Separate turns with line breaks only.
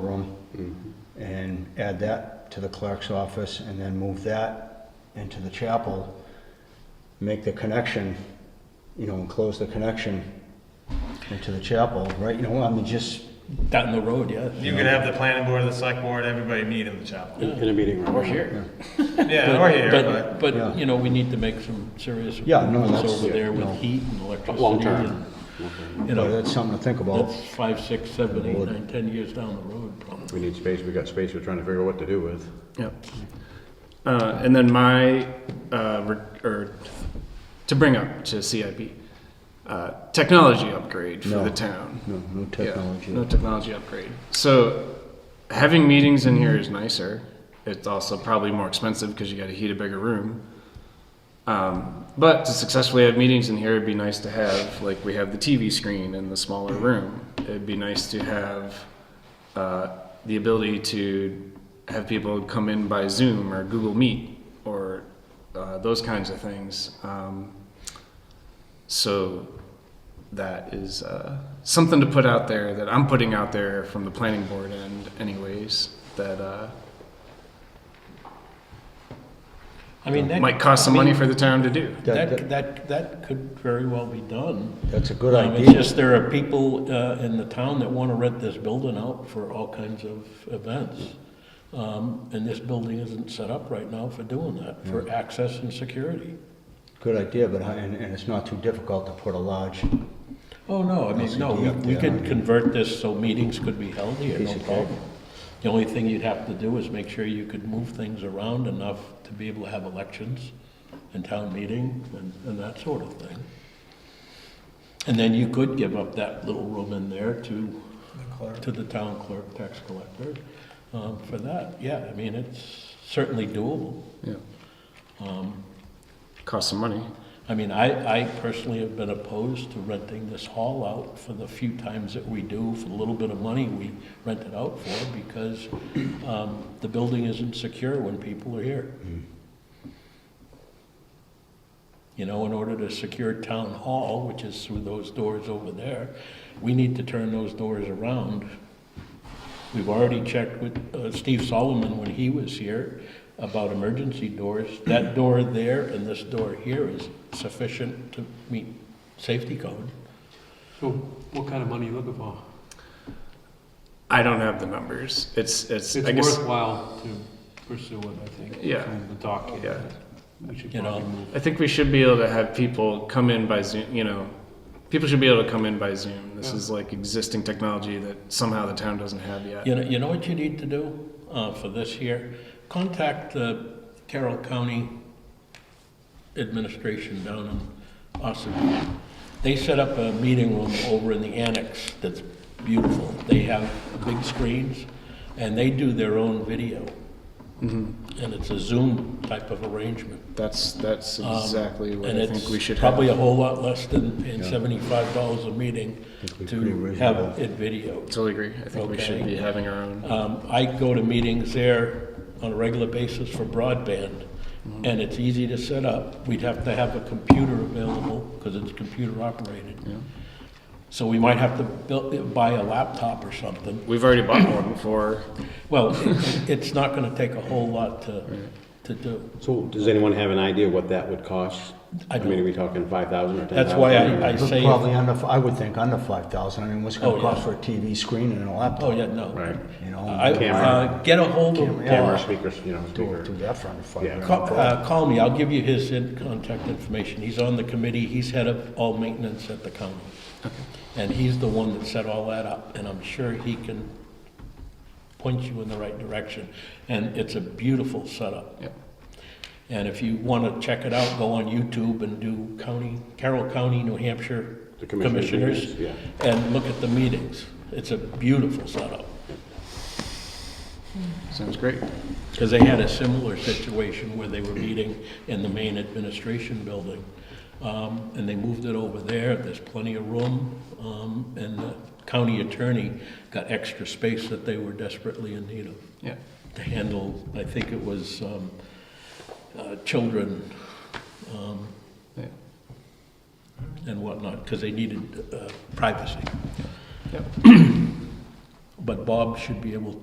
room and add that to the clerk's office and then move that into the chapel, make the connection, you know, and close the connection into the chapel, right? You know, I mean, just,
Down the road, yeah.
You could have the planning board, the select board, everybody meet in the chapel.
in a meeting room.
Or here.
Yeah, or here, but,
But,
Yeah.
but, you know, we need to make some serious
Yeah, no,
improvements
that's-
over there
no.
with heat and electricity.
Long-term.
and, You
you know,
know,
that's something to think about.
that's five, six, seven, eight, nine, ten years down the road, probably.
We need space, we got space, we're trying to figure out what to do with.
Yep. Uh, and then my, uh, re- or to bring up to CIP, uh, technology upgrade for
No.
the town.
No, no
Yeah,
technology.
no technology upgrade. So having meetings in here is nicer. It's also probably more expensive because you got to heat a bigger room. Um, but to successfully have meetings in here, it'd be nice to have like we have the TV screen in the smaller room. It'd be nice to have uh, the ability to have people come in by Zoom or Google Meet or uh, those kinds of things. Um, so that is uh, something to put out there that I'm putting out there from the planning board end, anyways. That uh,
I mean, that.
might cost some
I
money
mean,
for the town to do.
That-
That, that, that could very well be done.
That's a good
Um,
idea.
It's just there are people uh, in the town that want to rent this building out for all kinds of events. Um, And this building isn't set up right now for doing that, for access and security.
Good idea, but, I- and, and it's not too difficult to put a large
Oh, no, I mean, no,
LCD
we
up
we
there, I
could
mean.
convert this so meetings could be held here, no
of cake.
problem. The only thing you'd have to do is make sure you could move things around enough to be able to have elections and town meeting and, and that sort of thing. And then you could give up that little room in there to, to the town clerk, tax collector, um, for that. Yeah, I mean, it's certainly doable.
Yeah. cost some money.
I mean, I, I personally have been opposed to renting this hall out for the few times that we do, for the little bit of money we rent it out for, because um, the building isn't secure when people are here. You know, in order to secure town hall, which is through those doors over there, we need to turn those doors around We've already checked with uh, Steve Solomon when he was here about emergency doors. That door there and this door here is sufficient to meet safety code.
So what kind of money you looking for?
I don't have the numbers. It's it's, I
It's
guess
worthwhile to pursue it, I think.
Yeah.
From the document.
Yeah.
We should
You know.
probably move.
I think we should be able to have people come in by Zoom. You know, people should be able to come in by Zoom. This is like existing technology that somehow the town doesn't have yet.
You know, you know what you need to do uh, for this year? Contact the Carroll County Administration down in Austin. They set up a meeting room over in the annex that's beautiful. They have big screens, and they do their own video.
Mm-hmm.
And it's a Zoom type of arrangement.
That's that's
Um,
exactly what
and
I
it's
think we should
Probably a
have.
whole lot less than paying seventy-five dollars a meeting
we pretty
to have
reasonable.
it videoed.
Totally agree. I think we should
Okay.
be having our own.
Um, I go to meetings there on a regular basis for broadband, and it's easy to set up. We'd have to have a computer available, because it's computer operated. So we might have to build, buy a laptop or something.
We've already bought one before.
Well, it- it's not gonna take a whole lot to, to do.
So does anyone have an idea what that would cost?
I
mean, are
don't.
we talking five thousand or ten thousand?
That's why I, I say,
Probably under, I would think under five thousand, I mean, what's it
Oh,
gonna
yeah.
cost for a TV screen and a
oh,
laptop?
yeah, no.
Right.
You know,
I, uh,
Camera.
get a hold of Bob.
Camera, speakers, you know,
Do
speaker.
do that for under five
Yeah.
grand, no
Call,
problem.
uh, call me, I'll give you his in- contact information. He's on the committee, he's head of all maintenance at the county. And he's the one that set all that up, and I'm sure he can point you in the right direction. And it's a beautiful setup.
Yep.
And if you want to check it out, go on YouTube and do county, Carroll County, New Hampshire
The commissioners'
Commissioners,
meetings,
and look at the meetings. It's a beautiful setup.
Sounds great.
Because they had a similar situation where they were meeting in the main administration building. Um, And they moved it over there, there's plenty of room, um, and the county attorney got extra space that they were desperately in need of
Yeah.
to handle, I think it was um, uh, children um,
Yeah.
and whatnot, because they needed uh, privacy.
Yep.
But Bob should be able to.